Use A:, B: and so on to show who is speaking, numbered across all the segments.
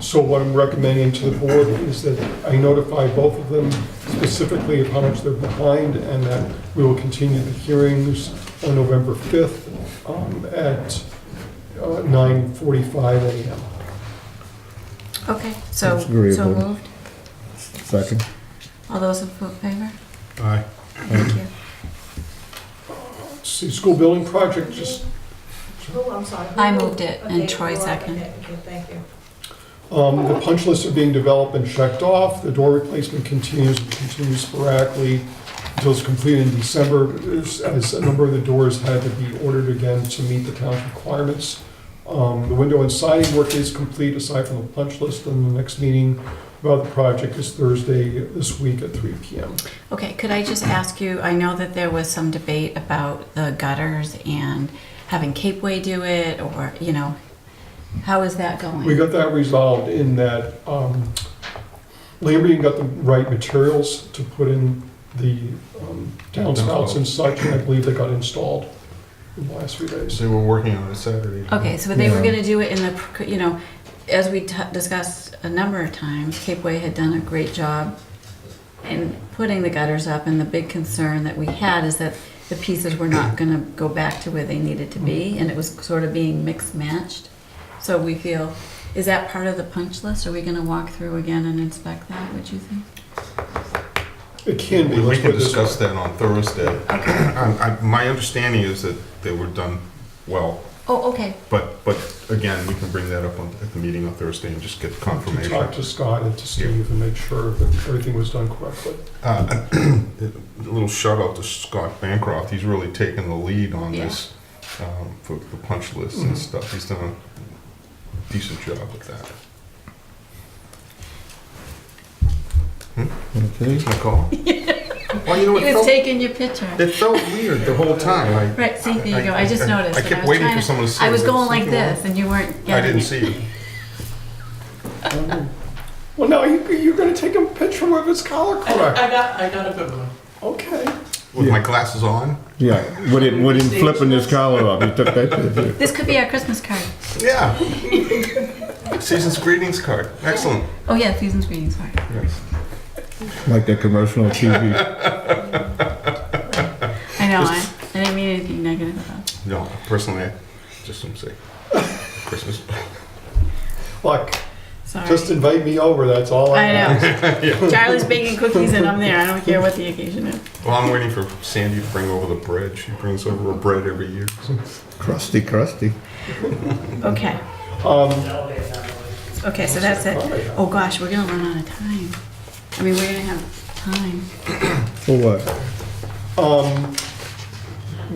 A: So what I'm recommending to the board is that I notify both of them specifically of how much they're behind and that we will continue the hearings on November 5th um, at uh, 9:45 a.m.
B: Okay, so,
C: That's
B: so
C: agreeable.
B: moved.
C: Second.
B: All those in favor?
D: Aye.
B: Thank you.
A: See, School building project, just
E: Oh, I'm sorry.
B: I moved it, and
E: Okay,
B: Troy
E: well,
B: seconded.
E: okay, okay, Thank you.
A: Um, The punch lists are being developed and checked off. The door replacement continues, continues sporadically until it's completed in December, as as a number of the doors had to be ordered again to meet the town's requirements. Um, The window and siding work is complete, aside from the punch list, and the next meeting about the project is Thursday this week at 3 PM.
B: Okay, could I just ask you, I know that there was some debate about the gutters and having Capeway do it, or, you know, how is that going?
A: We got that resolved in that um, Lambrian got the right materials to put in the um, downspouts and such, and I believe they got installed in the last few days.
D: They were working on it Saturday.
B: Okay, so they were
C: Yeah.
B: gonna do it in the, pr- you know, as we t- discussed a number of times, Capeway had done a great job in putting the gutters up, and the big concern that we had is that the pieces were not gonna go back to where they needed to be, and it was sort of being mixed matched. So we feel, is that part of the punch list? Are we gonna walk through again and inspect that, would you think?
A: It can be.
D: We
A: let's
D: can
A: put it this way.
D: discuss that on Thursday. Um, I- I- My understanding is that they were done well,
B: Oh, okay,
D: but, but again, we can bring that up on- at the meeting on Thursday and just get
A: To
D: confirmation.
A: talk to Scott and to Steve and make sure that everything was done correctly.
D: Uh, A little shout out to Scott Bancroft, he's really taken the lead on
B: Yeah. Mm-hmm.
D: this, um, for the punch lists and stuff, he's done a decent job with that.
C: Okay.
D: It's my call. Well, you know,
B: he
D: it
B: was
D: felt,
B: taking your picture.
D: it felt weird the whole time, I-
B: Right, see, there you go, I just noticed.
D: I
B: and
D: kept
B: was
D: waiting
B: trying
D: for someone to say.
B: I was
D: that
B: going like
D: something wrong.
B: this, and you weren't
D: I
B: getting
D: didn't
B: it.
D: see you.
A: Well, now you, you're gonna take a picture of his collar
F: I
A: correct.
F: I got, I got a good one.
A: Okay.
D: With
C: Yeah.
D: my glasses on?
C: Yeah, with him, with him flipping his collar off, he took that picture.
B: This could be our Christmas card.
D: Yeah. Season's greetings card. Excellent.
B: Oh yeah, season's greetings card.
C: Like that commercial on TV.
B: I know. I, I didn't mean anything negative about. It.
D: No, personally, I just want to say Christmas.
A: Look,
B: Sorry.
A: just invite me over, that's all I
B: I
A: ask.
B: know. Charlie's baking cookies and I'm there. I don't care what the occasion is.
D: Well, I'm waiting for Sandy to bring over the bread. She brings over a bread every year.
C: Crusty, crusty.
B: Okay.
A: Um,
B: Okay. So that's it. Oh gosh, we're gonna run out of time. I mean, we're gonna have time.
C: For what?
A: um,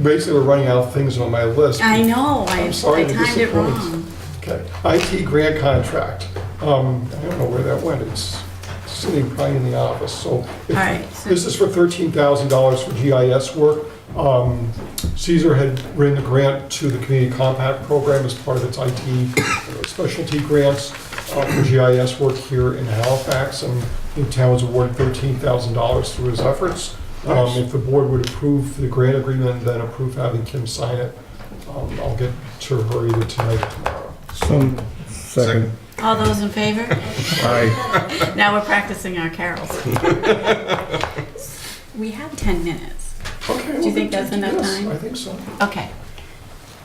A: Basically, we're running out of things on my list.
B: I know. I,
A: I'm sorry
B: I
A: to
B: timed it
A: disappoint.
B: wrong.
A: Okay, IT grant contract. Um, I don't know where that went, it's sitting probably in the office, so. if-
B: All right, so-
A: This is for thirteen thousand dollars for GIS work. Um, Caesar had written a grant to the Community Compact Program as part of its IT specialty grants uh, for GIS work here in Halifax, and the town was awarded thirteen thousand dollars through his efforts. Um,
D: Nice.
A: If the board would approve the grant agreement, then approve having Kim sign it. Um, I'll get to her either tonight or tomorrow.
C: Some second.
B: All those in favor?
C: Aye.
B: Now we're practicing our carols. we have ten minutes.
A: Okay.
B: Do you think that's enough
A: yes,
B: time?
A: I think so.
B: Okay.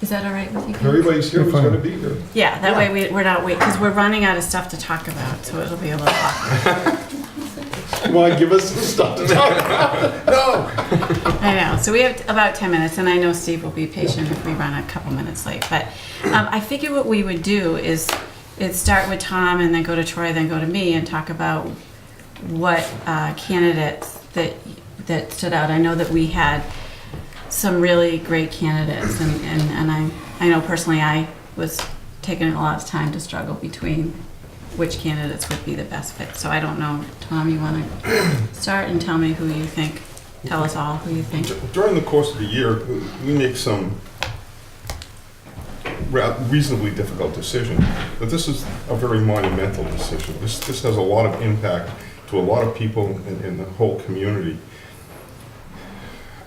B: Is that all right with you?
A: If
B: guys?
A: Everybody's here who's
C: You're fine.
A: going to be here.
B: Yeah, that way we, we're not waiting, because we're running out of stuff to talk about, so it'll be a little awkward.
A: Why give us some stuff to talk about? No.
B: I know, so we have about 10 minutes, and I know Steve will be patient if we run a couple minutes late, but um, I figure what we would do is, is start with Tom and then go to Troy, then go to me and talk about what uh, candidates that, that stood out. I know that we had some really great candidates, and, and, and I, I know personally I was taking a lot of time to struggle between which candidates would be the best fit. So I don't know, Tom, you want to start and tell me who you think, tell us all who you think.
D: D- During the course of the year, we make some ra- reasonably difficult decision, but this is a very monumental decision. This, this has a lot of impact to a lot of people in, in the whole community.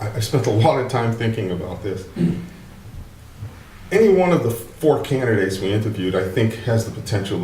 D: I, I spent a lot of time thinking about this. Any one of the four candidates we interviewed, I think, has the potential